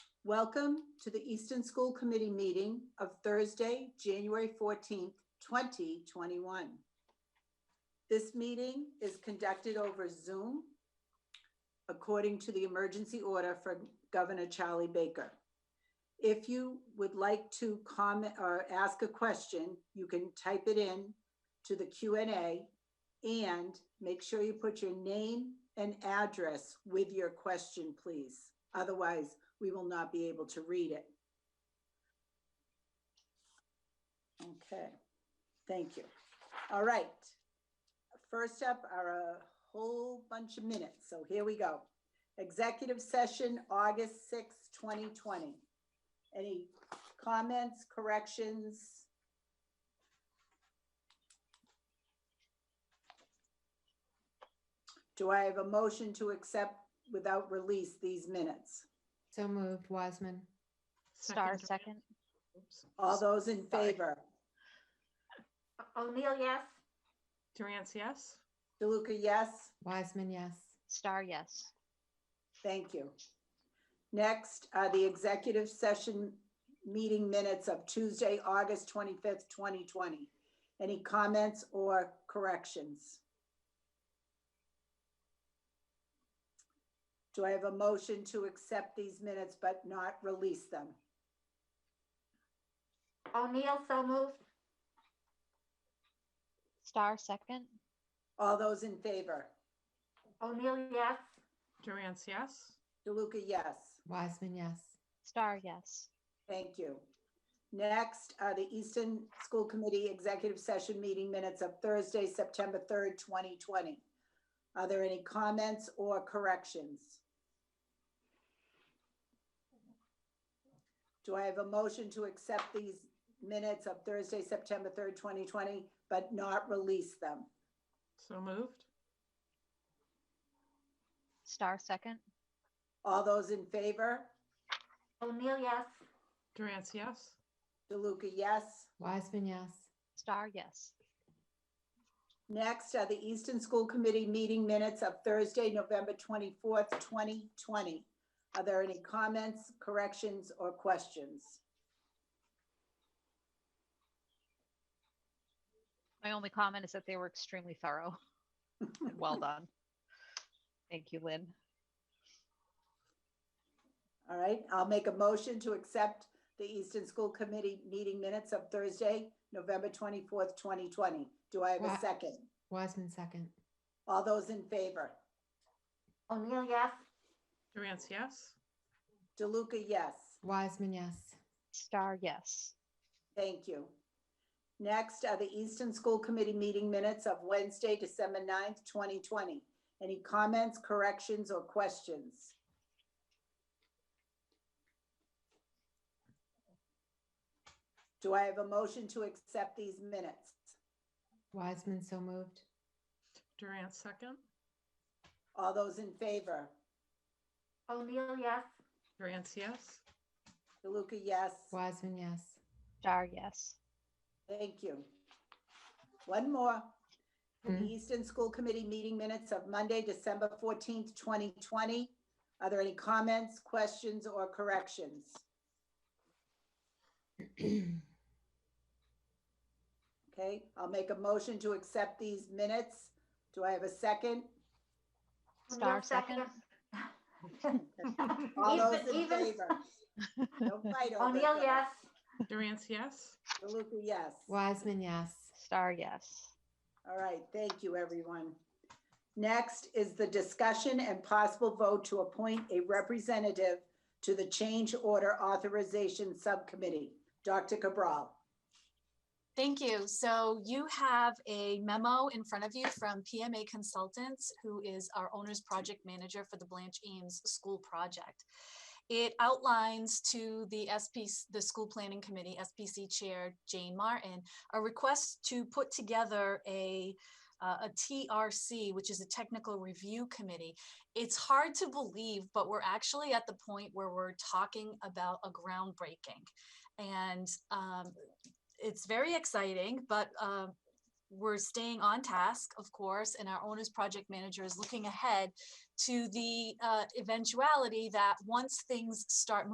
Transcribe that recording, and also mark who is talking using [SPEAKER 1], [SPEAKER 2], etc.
[SPEAKER 1] Welcome to the Easton School Committee meeting of Thursday, January 14th, 2021. This meeting is conducted over Zoom according to the emergency order for Governor Charlie Baker. If you would like to comment or ask a question, you can type it in to the Q and A and make sure you put your name and address with your question, please. Otherwise, we will not be able to read it. Okay, thank you. All right. First up are a whole bunch of minutes, so here we go. Executive session, August sixth, twenty twenty. Any comments, corrections? Do I have a motion to accept without release these minutes?
[SPEAKER 2] So moved, Wiseman.
[SPEAKER 3] Star
[SPEAKER 4] Second.
[SPEAKER 3] second,
[SPEAKER 4] Oops.
[SPEAKER 1] All those in favor?
[SPEAKER 5] O'Neill, yes.
[SPEAKER 4] Durance, yes?
[SPEAKER 1] DeLuca, yes?
[SPEAKER 2] Wiseman, yes.
[SPEAKER 3] star yes,
[SPEAKER 1] Thank you. Next, are the executive session meeting minutes of Tuesday, August 25th, 2020. Any comments or corrections? Do I have a motion to accept these minutes but not release them?
[SPEAKER 5] O'Neill, so moved.
[SPEAKER 3] star second,
[SPEAKER 1] All those in favor?
[SPEAKER 5] O'Neill, yes.
[SPEAKER 4] Durance, yes?
[SPEAKER 1] DeLuca, yes?
[SPEAKER 2] Wiseman, yes.
[SPEAKER 3] star yes,
[SPEAKER 1] Thank you. Next, uh, the Easton School Committee Executive Session Meeting Minutes of Thursday, September 3rd, 2020. Are there any comments or corrections? Do I have a motion to accept these minutes of Thursday, September 3rd, 2020, but not release them?
[SPEAKER 4] So moved?
[SPEAKER 3] star second,
[SPEAKER 1] All those in favor?
[SPEAKER 5] O'Neill, yes.
[SPEAKER 4] Durance, yes?
[SPEAKER 1] DeLuca, yes?
[SPEAKER 2] Wiseman, yes.
[SPEAKER 3] star yes,
[SPEAKER 1] Next are the Easton School Committee meeting minutes of Thursday, November 24th, 2020. Are there any comments, corrections, or questions?
[SPEAKER 3] my only comment is that they were extremely thorough. and Well done. Thank you, Lynn,
[SPEAKER 1] All right, I'll make a motion to accept the Easton School Committee meeting minutes of Thursday, November 24th, 2020. Do I have a
[SPEAKER 2] Wa-
[SPEAKER 1] second?
[SPEAKER 2] Wiseman, second.
[SPEAKER 1] All those in favor?
[SPEAKER 5] O'Neill, yes.
[SPEAKER 4] Durance, yes?
[SPEAKER 1] DeLuca, yes.
[SPEAKER 2] Wiseman, yes.
[SPEAKER 3] star yes,
[SPEAKER 1] Thank you. Next are the Easton School Committee meeting minutes of Wednesday, December 9th, 2020. Any comments, corrections, or questions? Do I have a motion to accept these minutes?
[SPEAKER 2] Wiseman, so moved.
[SPEAKER 4] Durance, second?
[SPEAKER 1] All those in favor?
[SPEAKER 5] O'Neill, yes.
[SPEAKER 4] Durance, yes?
[SPEAKER 1] DeLuca, yes.
[SPEAKER 2] Wiseman, yes.
[SPEAKER 3] star yes,
[SPEAKER 1] Thank you. One more. The
[SPEAKER 2] Hmm.
[SPEAKER 1] Easton School Committee meeting minutes of Monday, December 14th, 2020. Are there any comments, questions, or corrections? Okay, I'll make a motion to accept these minutes. Do I have a second?
[SPEAKER 3] star
[SPEAKER 5] O'Neill,
[SPEAKER 3] second,
[SPEAKER 1] All those
[SPEAKER 5] Even-
[SPEAKER 1] in
[SPEAKER 5] even-
[SPEAKER 1] favor? Don't fight over it.
[SPEAKER 5] O'Neill, yes.
[SPEAKER 4] Durance, yes?
[SPEAKER 1] DeLuca, yes.
[SPEAKER 2] Wiseman, yes.
[SPEAKER 3] star yes,
[SPEAKER 1] All right, thank you, everyone. Next is the discussion and possible vote to appoint a representative to the Change Order Authorization Subcommittee. Dr. Cabral.
[SPEAKER 6] Thank you. So you have a memo in front of you from PMA Consultants, who is our owner's project manager for the Blanche Eames School Project. It outlines to the SP, the School Planning Committee, SPC Chair Jane Martin, a request to put together a, uh, a TRC, which is a Technical Review Committee. It's hard to believe, but we're actually at the point where we're talking about a groundbreaking. And um, it's very exciting, but um, we're staying on task, of course, and our owner's project manager is looking ahead to the uh, eventuality that once things start